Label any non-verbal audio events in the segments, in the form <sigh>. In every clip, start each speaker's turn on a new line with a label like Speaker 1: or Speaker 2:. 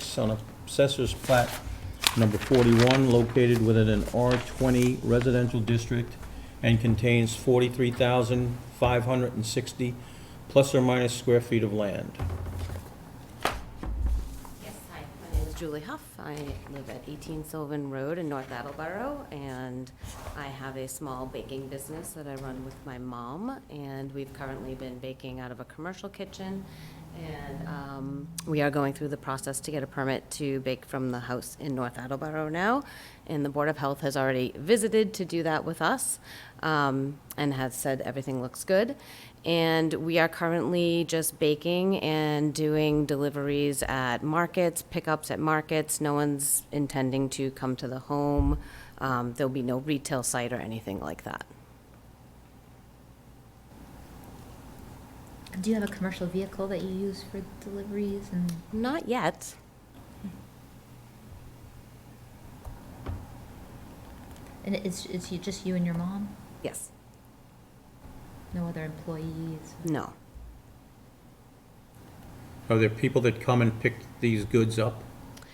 Speaker 1: six on Assessor's Plat Number 41, located within an R20 residential district and contains 43,560 plus or minus square feet of land.
Speaker 2: Yes, hi, my name is Julie Huff. I live at 18 Sylvan Road in North Attleboro, and I have a small baking business that I run with my mom, and we've currently been baking out of a commercial kitchen, and um, we are going through the process to get a permit to bake from the house in North Attleboro now, and the Board of Health has already visited to do that with us, um, and has said everything looks good, and we are currently just baking and doing deliveries at markets, pickups at markets. No one's intending to come to the home. Um, There'll be no retail site or anything like that.
Speaker 3: Do you have a commercial vehicle that you use for deliveries and?
Speaker 2: Not yet.
Speaker 3: And it's, it's you- just you and your mom?
Speaker 2: Yes.
Speaker 3: No other employees?
Speaker 2: No.
Speaker 1: Are there people that come and pick these goods up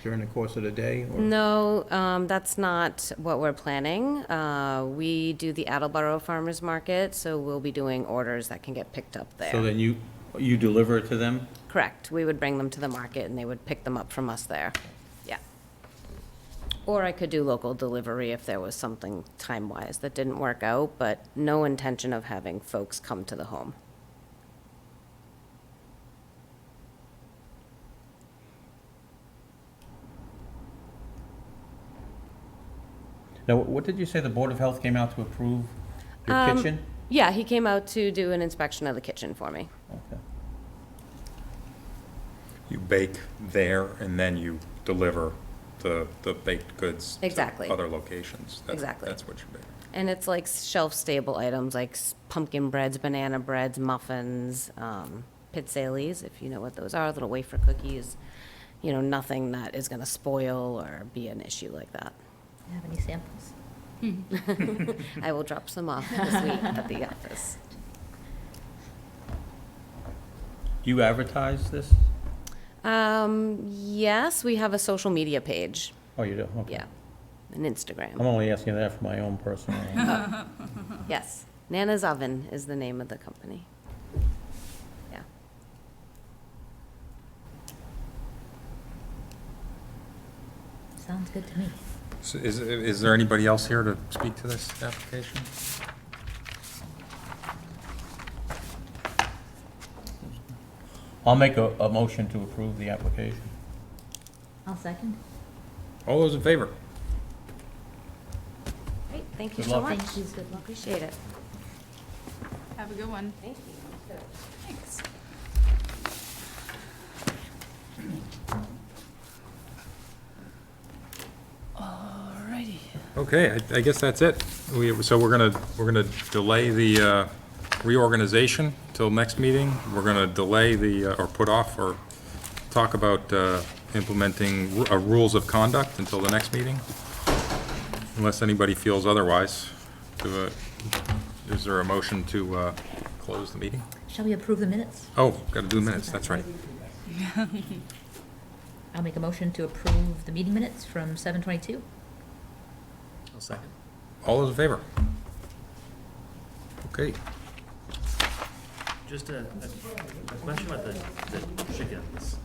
Speaker 1: during the course of the day? or-
Speaker 2: No, um, that's not what we're planning. Uh, we do the Attleboro Farmers Market, so we'll be doing orders that can get picked up
Speaker 1: So
Speaker 2: there.
Speaker 1: then you, you deliver it to them?
Speaker 2: Correct. We would bring them to the market and they would pick them up from us there. Yeah. Or I could do local delivery if there was something time-wise that didn't work out, but no intention of having folks come to the home.
Speaker 1: Now, what did you say the Board of Health came out to approve? Your
Speaker 2: Um,
Speaker 1: kitchen?
Speaker 2: Yeah, he came out to do an inspection of the kitchen for me.
Speaker 1: Okay.
Speaker 4: You bake there and then you deliver the, the baked goods
Speaker 2: Exactly.
Speaker 4: to other locations. That's-
Speaker 2: Exactly.
Speaker 4: That's what you bake.
Speaker 2: And it's like shelf-stable items, like s- pumpkin breads, banana breads, muffins, um, pizzelles, if you know what those are, little wafer cookies. You know, nothing that is gonna spoil or be an issue like that.
Speaker 3: Do you have any samples?
Speaker 2: <laughs> I will drop some
Speaker 3: <laughs>
Speaker 2: off this week at the office.
Speaker 1: Do you advertise this?
Speaker 2: Um, yes, we have a social media page,
Speaker 1: Oh, you do? Okay.
Speaker 2: yeah, an Instagram.
Speaker 1: I'm only asking that for my own
Speaker 2: <laughs>
Speaker 1: personal.
Speaker 2: Yes, Nana's Oven is the name of the company. Yeah.
Speaker 3: Sounds good to me.
Speaker 4: So is, is there anybody else here to speak to this application?
Speaker 1: I'll make a, a motion to approve the application.
Speaker 3: I'll second.
Speaker 4: All those in favor?
Speaker 2: Great, thank you
Speaker 1: Good
Speaker 2: so
Speaker 1: luck.
Speaker 2: much.
Speaker 3: Thank you, good luck.
Speaker 2: Appreciate it.
Speaker 5: Have a good one.
Speaker 2: Thank you.
Speaker 5: Thanks. Alrighty.
Speaker 4: Okay, I, I guess that's it. We, so we're gonna, we're gonna delay the uh, reorganization till next meeting. We're gonna delay the, uh, or put off, or talk about uh, implementing ru- uh, rules of conduct until the next meeting, unless anybody feels otherwise. Do a- Is there a motion to uh, close the meeting?
Speaker 3: Shall we approve the minutes?
Speaker 4: Oh, gotta do minutes, that's right.
Speaker 3: I'll make a motion to approve the meeting minutes from seven twenty-two.
Speaker 4: All those in favor? Okay.
Speaker 6: Just a, a- a question about the, the chickens.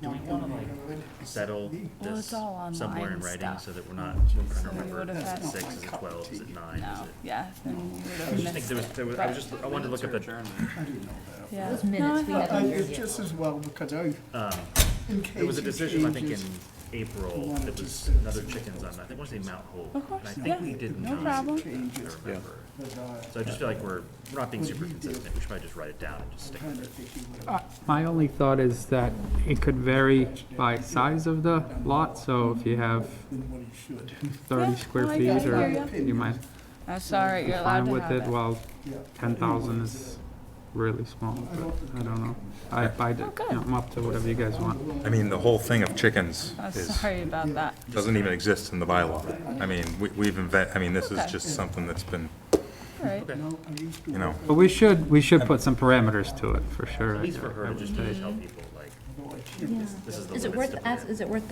Speaker 6: Do we wanna like settle
Speaker 5: Well,
Speaker 6: this
Speaker 5: it's all
Speaker 6: somewhere in
Speaker 5: online
Speaker 6: writing
Speaker 5: stuff.
Speaker 6: so that we're not trying to remember
Speaker 5: would've
Speaker 6: if
Speaker 5: had-
Speaker 6: it's six, is it twelve, is it nine, is
Speaker 5: No, Oh,
Speaker 6: it?
Speaker 5: yeah, then you would have
Speaker 6: I think
Speaker 5: missed
Speaker 6: there was,
Speaker 5: it,
Speaker 6: there was, I was
Speaker 5: but-
Speaker 6: just, I wanted to look up at,
Speaker 5: Yeah.
Speaker 3: Those
Speaker 5: No, I
Speaker 3: minutes we
Speaker 5: thought-
Speaker 3: have
Speaker 7: Uh,
Speaker 3: on here
Speaker 7: It's
Speaker 3: yet.
Speaker 7: just as well, because I,
Speaker 6: um,
Speaker 7: in case
Speaker 6: there was a
Speaker 7: it
Speaker 6: decision, I think, in
Speaker 7: changes-
Speaker 6: April,
Speaker 7: wanted
Speaker 6: that
Speaker 7: to
Speaker 6: was
Speaker 7: sit
Speaker 6: another
Speaker 7: some of
Speaker 6: chickens on, I
Speaker 7: those
Speaker 6: think, I want to say Mount Hope.
Speaker 5: Of course,
Speaker 6: And I
Speaker 5: yeah,
Speaker 6: think we did
Speaker 5: no
Speaker 6: nine,
Speaker 5: problem.
Speaker 6: if
Speaker 7: Changes.
Speaker 6: I remember.
Speaker 7: But, uh,
Speaker 6: So I just feel like we're, we're not being super consistent, we should probably just write it down and just stick with
Speaker 7: kinda
Speaker 6: it.
Speaker 7: think he would've-
Speaker 8: Uh, My only thought is that it could vary by size of the lot, so if you have
Speaker 7: than what he should.
Speaker 8: 30
Speaker 5: Yeah,
Speaker 8: square
Speaker 5: no, I get
Speaker 8: feet,
Speaker 5: it,
Speaker 8: or
Speaker 5: yeah,
Speaker 7: yeah.
Speaker 8: you might
Speaker 5: I'm sorry,
Speaker 8: be
Speaker 5: you're allowed
Speaker 8: fine
Speaker 5: to
Speaker 8: with
Speaker 5: have
Speaker 8: it,
Speaker 5: it.
Speaker 8: while
Speaker 7: Yeah.
Speaker 8: 10,000 is really small, but I don't know. I, I, d-
Speaker 5: Oh, good.
Speaker 8: you know, I'm up to whatever you guys want.
Speaker 4: I mean, the whole thing of chickens
Speaker 5: I'm
Speaker 4: is,
Speaker 5: Oh, sorry about that.
Speaker 4: doesn't even exist in the bylaw. I mean, we- we've invent, I mean, this is
Speaker 5: Okay.
Speaker 4: just something that's been,
Speaker 5: Alright,
Speaker 7: No, I used to
Speaker 4: you know,
Speaker 7: work
Speaker 8: But we should, we should put some parameters to it, for sure.
Speaker 6: At least
Speaker 8: I-
Speaker 6: for
Speaker 8: I
Speaker 6: her,
Speaker 8: would
Speaker 6: just
Speaker 8: say.
Speaker 6: to tell people, like,
Speaker 7: with it.
Speaker 6: this is the
Speaker 3: Is
Speaker 6: limit.
Speaker 3: it worth, ask- is it worth